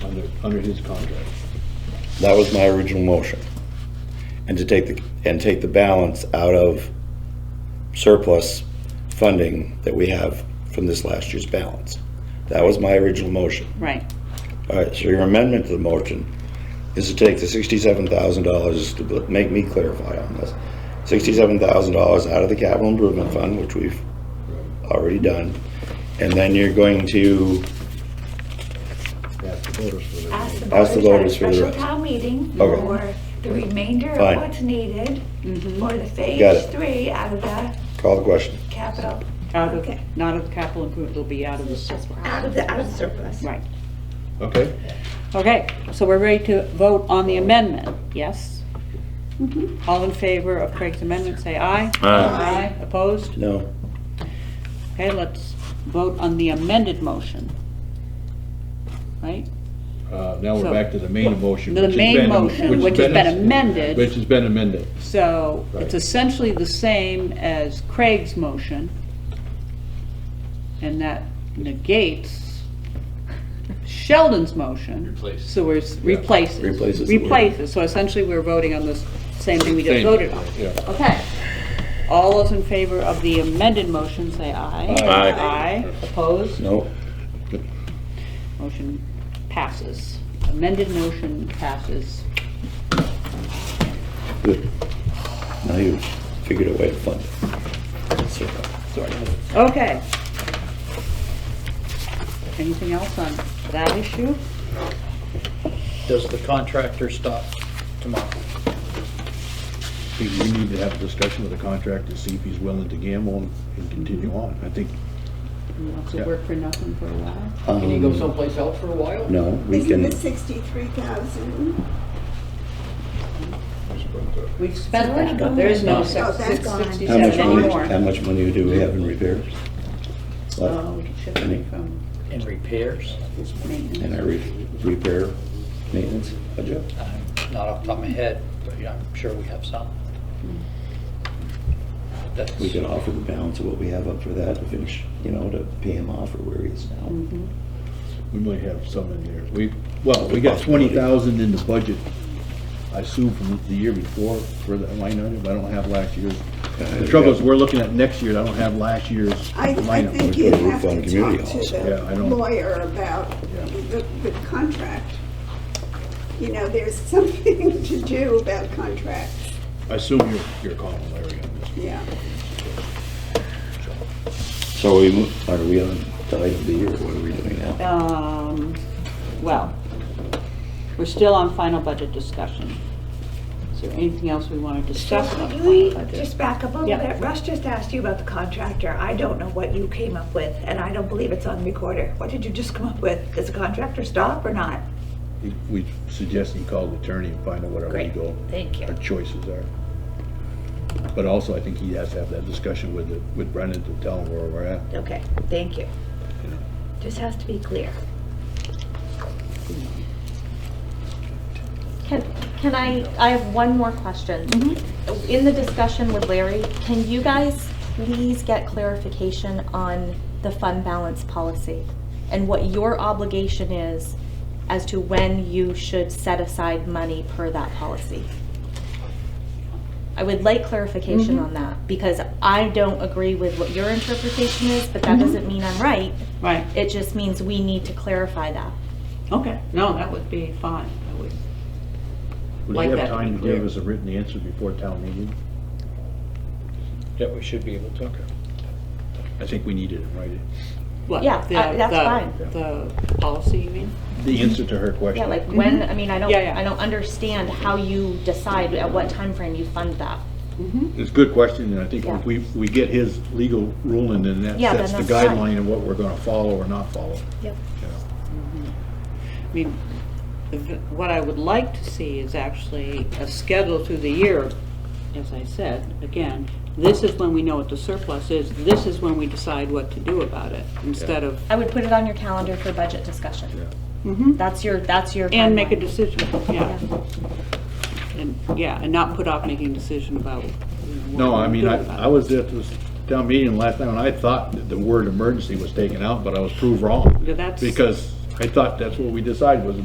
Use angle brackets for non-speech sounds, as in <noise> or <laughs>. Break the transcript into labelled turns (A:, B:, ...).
A: under his contract.
B: That was my original motion. And to take the, and take the balance out of surplus funding that we have from this last year's balance. That was my original motion.
C: Right.
B: All right, so your amendment to the motion is to take the sixty-seven thousand dollars, to bl- make me clarify on this, sixty-seven thousand dollars out of the capital improvement fund, which we've already done, and then you're going to,
A: Ask the voters for their
D: Ask the
A: vote.
B: Ask the voters
D: voters
B: for
D: at a
B: the
D: special
B: rest.
D: town meeting
B: Okay.
D: for the remainder
B: Fine.
D: of what's needed for the
B: Got
D: phase
B: it.
D: three out of the
B: call the question.
D: capital,
C: Out of,
D: Okay.
C: not of capital improvement, it'll be out of the surplus.
D: out of the, out of surplus.
C: Right.
A: Okay,
C: Okay, so we're ready to vote on the amendment, yes? All in favor of Craig's amendment, say aye. Aye. Opposed?
B: No,
C: Okay, let's vote on the amended motion. Right?
A: uh, now we're
C: So-
A: back to the main motion.
C: The
A: which has
C: main
A: been-
C: motion, which has been amended.
A: Which has been amended.
C: So it's
A: Right.
C: essentially the same as Craig's motion, and that negates Sheldon's motion.
E: Replace.
C: So we're, s- replaces.
B: Replaces the word.
C: Replaces, so essentially we're voting on this same thing we just
A: Same,
C: voted on.
A: yeah.
C: Okay. All those in favor of the amended motion, say aye.
B: Aye.
C: Aye, opposed,
B: no,
C: motion passes. Amended motion passes.
B: good. Now you figured a way to fund it. So-
C: Okay. Anything else on that issue?
F: Does the contractor stop tomorrow?
A: I think we need to have a discussion with the contractor, see if he's willing to gamble and- and continue on. I think
C: You want to work for nothing for a while?
F: Can he go someplace else for a while?
B: um, No, we
G: Isn't
B: can,
G: it sixty-three thousand?
C: We've spent
D: already
C: that,
D: gone.
C: there is no
D: Oh,
C: six-
G: that's
C: six-
G: gone.
B: how much
C: 67
B: money,
C: anymore.
B: how much money do we have in repairs?
C: Oh, we
B: Left
C: can shift
B: Any-
C: it from
F: In repairs?
C: maintenance.
B: in our re- repair maintenance budget?
F: I'm Uh, Not off the top of my head, but yeah, I'm sure we have some. That's,
B: Hmm. we could offer the balance of what we have up for that to finish, you know, to pay him off or where he is now.
A: we might have some in there. We, well, we got twenty thousand in the budget, I assume from the year before for the line item. I don't have last year's. The trouble is, we're looking at next year, and I don't have last year's
G: I, I
A: line item.
G: think you
B: put a roof
G: have
B: on
G: to
B: community
G: talk
B: halls.
G: to
A: Yeah, I
G: the
A: don't-
G: lawyer about
A: Yeah.
G: the, the contract. You know, there's <laughs> something to do about contracts,
A: I assume you're, you're calling Larry on this.
G: yeah.
B: So we, mo- are we on the item B or what are we doing now?
C: Um, well, we're still on final budget discussion. Is there anything else we want to
D: So
C: discuss on
D: could
C: final
D: we
C: budget?
D: just back up a little
C: Yeah.
D: bit? Russ just asked you about the contractor. I don't know what you came up with, and I don't believe it's on the recorder. What did you just come up with? Does the contractor stop or not?
A: He- We suggest he call the attorney and find out what our
D: Great,
A: legal,
D: thank you.
A: our choices are. But also, I think he has to have that discussion with, the- with Brendan to tell him where we're at.
D: Okay, thank you. Just has to be clear.
H: Can, can I, I have one more question. In the discussion with Larry, can you guys please get clarification on the fund balance policy? And what your obligation is as to when you should set aside money per that policy? I would like clarification on that, because I don't agree with what your interpretation is, but that doesn't mean I'm right.
C: Right,
H: It just means we need to clarify that.
C: okay, no, that would be fine, that would,
A: Would
C: Like
A: he
C: that
A: have
C: to be
A: time to
C: clear.
A: give us a written answer before town meeting?
F: that we should be able to.
A: I think we need it in writing.
C: what?
H: Yeah,
C: the-
H: I- that's
C: the-
H: fine.
C: The policy, you mean?
A: The answer to her question.
H: Yeah, like when, I mean, I don't,
C: Mm-hmm. Yeah, yeah.
H: I don't understand how you decide at what time frame you fund that.
A: It's a good question, and I think
H: Yeah.
A: if we, we get his legal ruling, then that
H: Yeah,
A: sets the
H: then that's fine.
A: guideline of what we're gonna follow or not follow.
H: Yep.
C: I mean, the v- what I would like to see is actually a schedule through the year, as I said, again, this is when we know what the surplus is, this is when we decide what to do about it, instead of,
H: I would put it on your calendar for budget discussion.
C: Mhm.
H: That's your, that's your.
C: and make a
H: timeline.
C: decision, yeah. And, yeah, and not put off making a decision about.
A: No, I mean, I, I was at this town meeting last night, and I thought that the word emergency was taken out, but I was proved wrong.
C: Yeah, that's-
A: Because I thought that's what we decided, was